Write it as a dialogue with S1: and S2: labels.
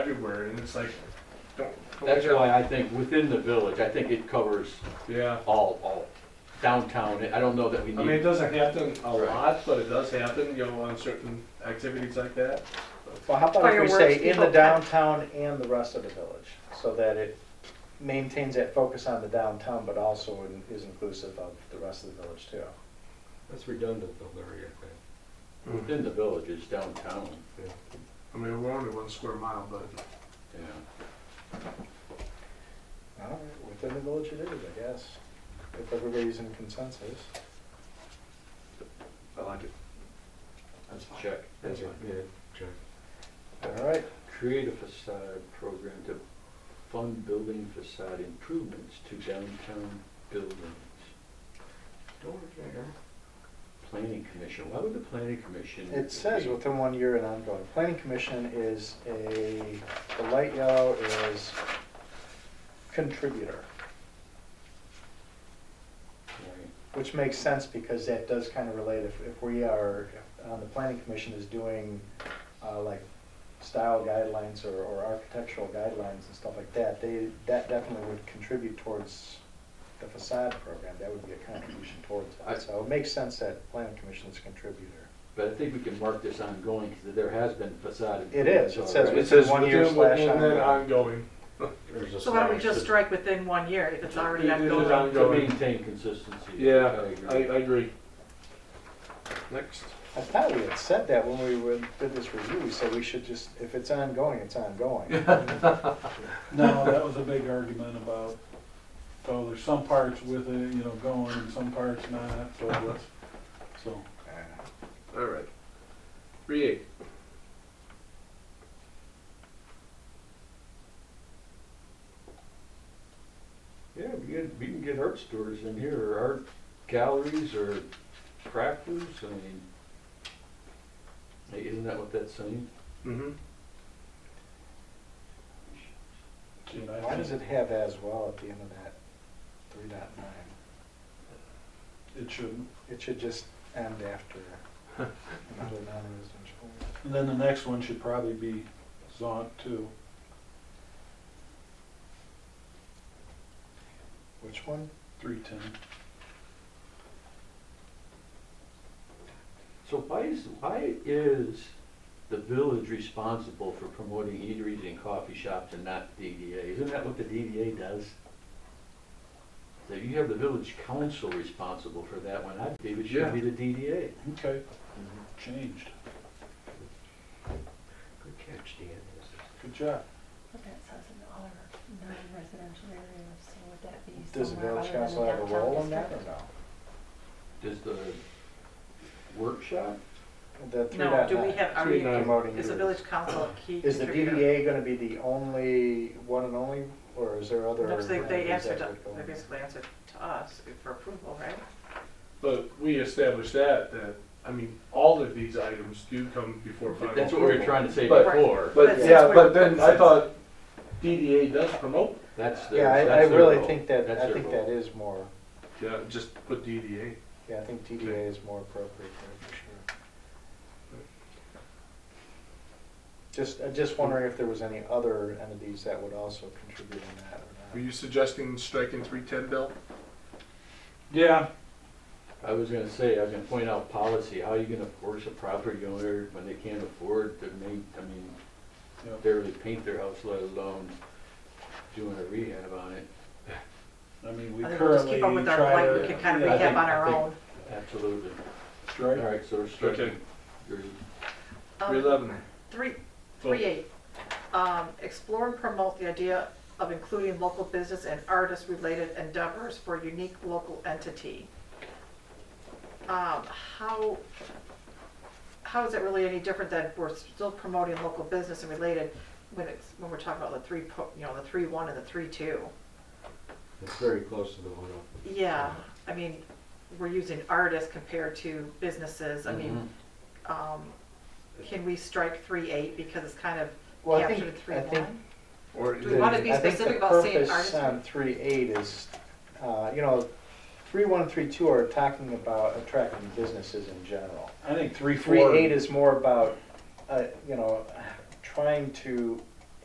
S1: everywhere, and it's like, don't. don't
S2: That's
S1: make that-
S2: why I think within the village, I think it covers
S1: Yeah,
S2: all, all downtown. I don't know that we
S1: I mean, it
S2: need,
S1: doesn't happen a
S2: Right.
S1: lot, but it does happen, you know, on certain activities like that.
S3: Well, how about if we say
S4: Fireworks,
S3: in the
S4: people-
S3: downtown and the rest of the village, so that it maintains that focus on the downtown, but also in- is inclusive of the rest of the village too.
S5: That's redundant though, Larry, I think.
S3: Mm.
S2: within the village is downtown,
S1: I mean, we're only one square mile, but
S2: yeah.
S3: All right, within the village it is, I guess, if everybody's in consensus.
S1: I like it. That's fine.
S2: Check.
S1: That's
S5: Yeah,
S1: fine.
S5: Yeah, check.
S3: All right,
S2: Create a facade program to fund building facade improvements to downtown buildings. Planning commission, why would the planning commission?
S3: it says
S2: be-
S3: within one year and ongoing. Planning commission is a, the light yellow is contributor,
S2: Right.
S3: which makes sense because that does kind of relate, if, if we are, uh, the planning commission is doing, uh, like style guidelines or, or architectural guidelines and stuff like that, they, that definitely would contribute towards the facade program, that would be a contribution towards
S2: I-
S3: that, so it makes sense that planning commission is a contributor.
S2: But I think we can mark this ongoing, because there has been facade.
S3: It is. It
S2: improvements
S3: says
S2: already.
S1: It says
S3: One year
S1: within,
S3: slash
S1: within, and then
S3: ongoing.
S1: ongoing.
S5: There's a
S4: So why don't we
S5: slash
S4: just
S5: that-
S4: strike within one year if it's already
S1: It is
S4: ongoing?
S1: on-
S2: To maintain consistency.
S1: Yeah, I, I
S2: agree.
S1: agree. Next.
S3: I thought we had said that when we were- did this review, we said we should just, if it's ongoing, it's ongoing.
S6: No, that was a big argument about, oh, there's some parts with it, you know, going and some parts not, so let's, so.
S1: All right. Three eight.
S2: Yeah, we can, we can get art stores in here, or art galleries, or crafters, I mean, hey, isn't that what that's saying?
S1: Mm-hmm.
S6: you know, I
S3: Why
S6: think
S3: does it have as well at the end of that three dot nine?
S6: It shouldn't.
S3: It should just end after another non-residential.
S6: And then the next one should probably be Zont too.
S3: Which one?
S6: three ten.
S2: So why is, why is the village responsible for promoting eateries and coffee shops and not the DDA? Isn't that what the DDA does? So you have the village council responsible for that one, I believe it should be the DDA.
S6: Okay,
S4: Mm-hmm.
S6: changed.
S5: Good catch, Dan.
S6: Good job.
S7: But that says in all our non-residential areas, so would that be
S3: Does the
S7: somewhere
S3: village
S7: other than
S3: council have a
S7: downtown
S3: role in that or
S7: district?
S3: no?
S2: Does the workshop?
S3: The three
S4: No,
S3: dot
S4: do we
S3: nine,
S4: have, are
S1: Three
S4: we,
S1: nine.
S3: promoting
S4: is the
S3: your-
S4: village council a key
S3: Is the
S4: contributor?
S3: DDA gonna be the only, one and only, or is there other?
S4: No, 'cause they, they
S3: entities
S4: answered,
S3: that
S4: to-
S3: would go
S4: they
S3: in?
S4: basically answered to us for approval, right?
S1: But we established that, that, I mean, all of these items do come before final.
S2: That's what we were
S1: approval.
S2: trying to say
S1: But-
S2: before.
S4: But
S1: But,
S4: since
S1: yeah,
S4: we're-
S1: but then I
S4: since-
S1: thought DDA does promote,
S2: That's their,
S3: Yeah, I,
S2: that's
S3: I
S2: their
S3: really
S2: role.
S3: think that,
S2: That's
S3: I
S2: their
S3: think
S2: role.
S3: that is more,
S1: yeah, just put DDA.
S3: yeah, I think DDA is more appropriate there for sure. Just, I'm just wondering if there was any other entities that would also contribute in that
S1: Were
S3: or not.
S1: you suggesting striking three ten, Bill?
S6: Yeah,
S2: I was gonna say, I was gonna point out policy, how are you gonna force a property owner when they can't afford to make, I mean,
S6: Yeah.
S2: barely paint their house, let alone doing a rehab on it,
S6: I mean, we
S4: I think we'll just
S6: currently
S4: keep up with our,
S6: try
S4: like, we
S6: to.
S4: can kind of
S6: yeah,
S2: I
S4: recap
S2: think-
S4: on our
S2: I think-
S4: own.
S2: absolutely. All
S6: Strike,
S2: right, so we're
S1: Okay.
S2: striking, your
S4: Um,
S1: Three eleven.
S4: Three, three eight, um, explore and promote the idea of including local business and artist-related endeavors for unique local entity. Um, how, how is it really any different than we're still promoting local business and related when it's, when we're talking about the three, po- you know, the three one and the three two?
S5: It's very close to the one up.
S4: Yeah, I mean, we're using artists compared to businesses, I mean, um, can we strike three eight because it's kind of
S3: Well, I
S4: captured
S3: think-
S4: in three
S3: I
S4: one?
S3: think
S1: Or
S4: Do we want to be
S3: I think
S4: specific
S3: the
S4: about saying
S3: purpose
S4: artistry?
S3: On three eight is, uh, you know, three one and three two are talking about attracting businesses in general.
S6: I think three,
S3: Three
S6: four.
S3: eight is more about, uh, you know, trying to